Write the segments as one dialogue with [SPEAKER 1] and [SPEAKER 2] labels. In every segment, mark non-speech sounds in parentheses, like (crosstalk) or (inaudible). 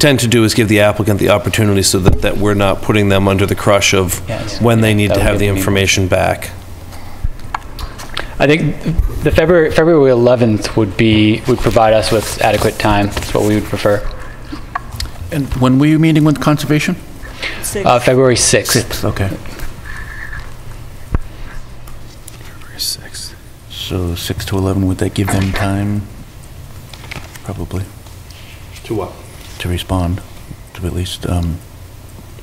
[SPEAKER 1] tend to do is give the applicant the opportunity so that, that we're not putting them under the crush of
[SPEAKER 2] Yes.
[SPEAKER 1] when they need
[SPEAKER 2] That
[SPEAKER 1] to
[SPEAKER 2] would
[SPEAKER 1] have
[SPEAKER 2] give
[SPEAKER 1] the
[SPEAKER 2] them-
[SPEAKER 1] information back.
[SPEAKER 2] I think the February, February 11th would be, would provide us with adequate time. That's what we would prefer.
[SPEAKER 3] And when were you meeting with Conservation?
[SPEAKER 2] Uh, February 6th.
[SPEAKER 3] Okay.
[SPEAKER 4] Six.
[SPEAKER 3] So 6 to 11, would that give them time? Probably,
[SPEAKER 1] To what?
[SPEAKER 3] to respond, to at least, um,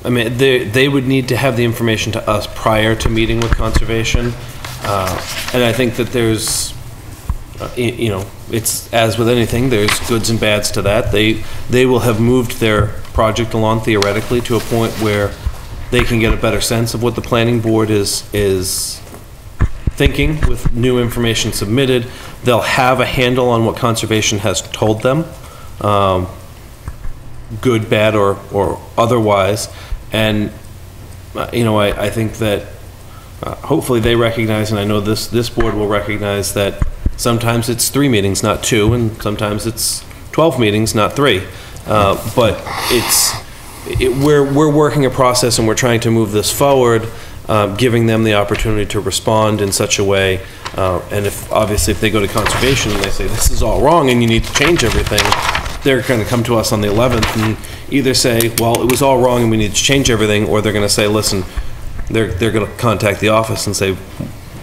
[SPEAKER 1] I mean, they, they would need to have the information to us prior to meeting with conservation. Uh, And I think that there's, uh, y- you know, it's, as with anything, there's goods and bads to that. They, they will have moved their project along theoretically to a point where they can get a better sense of what the planning board is, is thinking with new information submitted. They'll have a handle on what conservation has told them. Um, good, bad, or, or otherwise. And, uh, you know, I, I think that uh, hopefully they recognize, and I know this, this board will recognize, that sometimes it's three meetings, not two, and sometimes it's 12 meetings, not three. Uh, But it's, it, we're, we're working a process and we're trying to move this forward, uh, giving them the opportunity to respond in such a way. uh, And if, obviously, if they go to conservation and they say, this is all wrong and you need to change everything, they're going to come to us on the 11th and either say, well, it was all wrong and we need to change everything, or they're going to say, listen, they're, they're going to contact the office and say,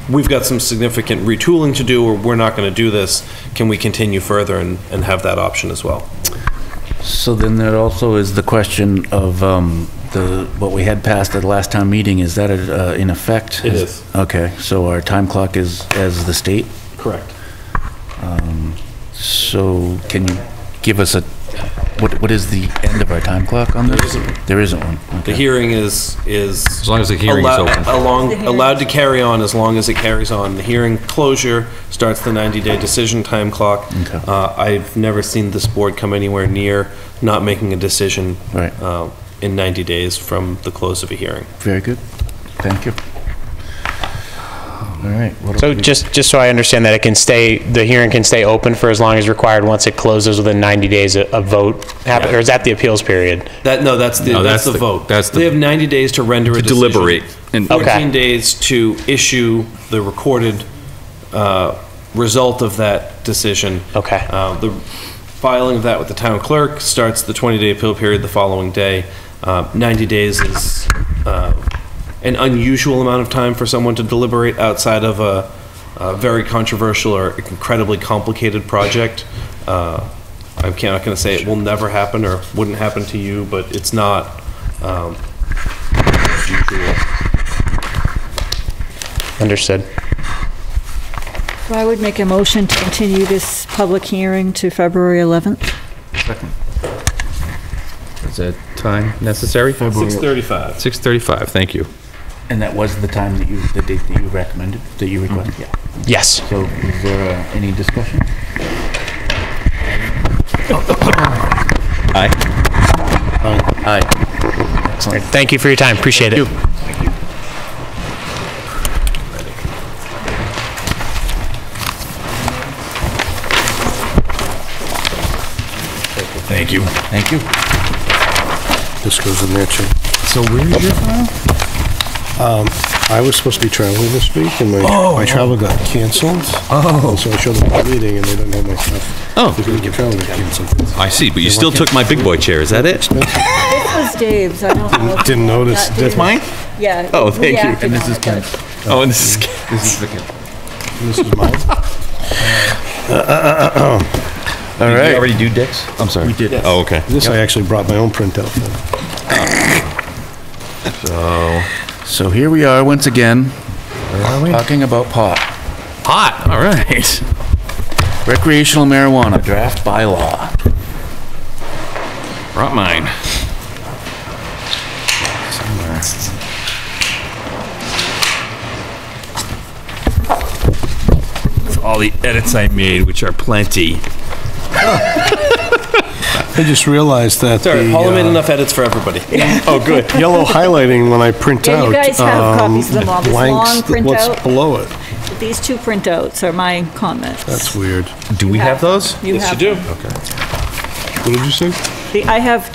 [SPEAKER 1] we've got some significant retooling to do, or we're not going to do this. Can we continue further and, and have that option as well?
[SPEAKER 3] So then there also is the question of um, the, what we had passed at the last town meeting, is that uh, in effect?
[SPEAKER 1] It is.
[SPEAKER 3] Okay, so our time clock is as the state,
[SPEAKER 1] Correct.
[SPEAKER 3] so can you give us a, what, what is the end of our time clock on this? There
[SPEAKER 1] isn't.
[SPEAKER 3] one,
[SPEAKER 1] The
[SPEAKER 3] okay.
[SPEAKER 1] hearing is, is. As
[SPEAKER 4] long as the hearing is open.
[SPEAKER 5] The hearing.
[SPEAKER 1] allowed to carry on as long as it carries on. The hearing closure starts the 90-day decision time clock.
[SPEAKER 3] Okay.
[SPEAKER 1] Uh, I've never seen this board come anywhere near not making a decision.
[SPEAKER 3] Right.
[SPEAKER 1] uh, In 90 days from the close of a hearing.
[SPEAKER 3] Very good, thank you. All right. what
[SPEAKER 6] So
[SPEAKER 3] else we-
[SPEAKER 6] just, just so I understand that it can stay, the hearing can stay open for as long as required once it closes within 90 days a a vote happen, or is that the appeals period?
[SPEAKER 1] That, no, that's the,
[SPEAKER 4] No,
[SPEAKER 1] that's
[SPEAKER 4] that's
[SPEAKER 1] the
[SPEAKER 4] the-
[SPEAKER 1] vote.
[SPEAKER 4] that's the-
[SPEAKER 1] They have 90 days to render a
[SPEAKER 4] To
[SPEAKER 1] decision.
[SPEAKER 4] deliberate and- Okay.
[SPEAKER 1] 14 days to issue the recorded uh, result of that decision.
[SPEAKER 6] Okay.
[SPEAKER 1] Uh, The filing of that with the town clerk starts the 20-day appeal period the following day. Uh, 90 days is uh, an unusual amount of time for someone to deliberate outside of a a very controversial or incredibly complicated project. Uh, I'm ca- not going to say it will never happen or wouldn't happen to you, but it's not um, usual.
[SPEAKER 6] Understood.
[SPEAKER 5] So I would make a motion to continue this public hearing to February 11th.
[SPEAKER 4] Is that time necessary?
[SPEAKER 1] 6:35.
[SPEAKER 4] 6:35, thank you.
[SPEAKER 3] And that was the time that you, the date that you recommended, that you requested? Yeah.
[SPEAKER 6] Yes.
[SPEAKER 3] So is there uh, any discussion?
[SPEAKER 4] Aye.
[SPEAKER 3] Aye. Excellent.
[SPEAKER 6] Thank you for your time. Appreciate it.
[SPEAKER 3] Thank you. Thank you.
[SPEAKER 7] This goes in there too. Um,
[SPEAKER 4] So where is your file?
[SPEAKER 7] I was supposed to be traveling this week and my, my travel got canceled. Oh. So I showed up at the meeting and they didn't have my stuff.
[SPEAKER 4] Oh.
[SPEAKER 7] Because my travel got canceled.
[SPEAKER 4] I see, but you still took my big boy chair, is that it?
[SPEAKER 5] This was Dave's, I don't know. if-
[SPEAKER 7] Didn't notice.
[SPEAKER 5] That didn't-
[SPEAKER 4] Mine?
[SPEAKER 5] Yeah.
[SPEAKER 4] Oh,
[SPEAKER 5] we
[SPEAKER 4] thank you.
[SPEAKER 5] acted
[SPEAKER 4] And
[SPEAKER 5] on it, but-
[SPEAKER 4] Oh, and this is,
[SPEAKER 7] This is
[SPEAKER 1] (laughs)
[SPEAKER 7] mine.
[SPEAKER 4] Uh, all right. Did you already do Dick's? I'm sorry. We
[SPEAKER 3] did.
[SPEAKER 4] Oh, okay.
[SPEAKER 7] This, I actually brought my own printout. for.
[SPEAKER 3] So here we are once again, talking about pot.
[SPEAKER 4] Hot, all right.
[SPEAKER 3] Recreational marijuana draft bylaw.
[SPEAKER 4] Brought mine. It's All the edits I made, which are plenty.
[SPEAKER 7] I just realized that the
[SPEAKER 1] Sorry, Paula made
[SPEAKER 7] uh,
[SPEAKER 1] enough edits for
[SPEAKER 4] (laughs)
[SPEAKER 1] everybody.
[SPEAKER 4] Oh,
[SPEAKER 7] yellow highlighting when I print
[SPEAKER 5] Yeah,
[SPEAKER 7] out.
[SPEAKER 5] you guys have
[SPEAKER 7] um,
[SPEAKER 5] copies of them all. This
[SPEAKER 7] blanks,
[SPEAKER 5] long
[SPEAKER 7] What's
[SPEAKER 5] printout.
[SPEAKER 7] below it?
[SPEAKER 5] These two printouts are my comments.
[SPEAKER 7] That's weird.
[SPEAKER 4] Do we have those?
[SPEAKER 5] You
[SPEAKER 1] Yes, you
[SPEAKER 5] have
[SPEAKER 1] do.
[SPEAKER 7] What did you say?
[SPEAKER 5] the- I have